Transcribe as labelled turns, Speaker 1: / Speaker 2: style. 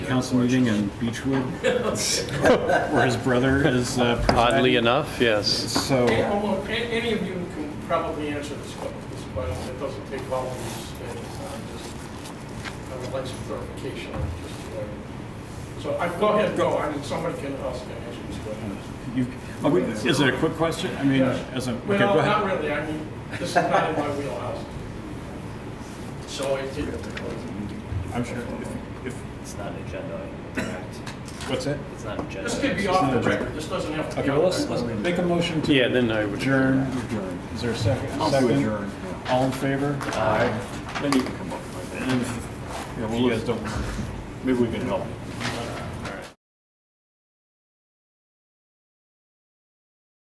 Speaker 1: council meeting in Beechwood, where his brother is uh,
Speaker 2: Oddly
Speaker 1: presiding.
Speaker 2: enough, yes.
Speaker 1: So,
Speaker 3: Hey, almost a- Any of you can probably answer this que- this question, it doesn't take volunteers, and uh, just, I would like some clarification on just what. So I, go ahead, go, I mean, somebody can, else can answer this question.
Speaker 1: you- oh, wait, is it a quick question? I mean, as a, okay,
Speaker 3: Well,
Speaker 1: go
Speaker 3: not
Speaker 1: ahead.
Speaker 3: really, I mean, this is not in my wheelhouse. So it did,
Speaker 1: I'm sure, if,
Speaker 4: It's not an agenda item, correct?
Speaker 1: if- what's that?
Speaker 4: It's not an agenda.
Speaker 3: this could be
Speaker 4: item.
Speaker 3: off the record, this doesn't have to be.
Speaker 1: Okay, well,
Speaker 3: on
Speaker 1: let's,
Speaker 3: the
Speaker 1: let's
Speaker 3: record.
Speaker 1: make a motion to
Speaker 2: Yeah, then I would.
Speaker 1: adjourn. Is there a 2nd Second. All in favor? Aye. Then you can come up with it. Yeah, well, you guys don't, maybe we can help.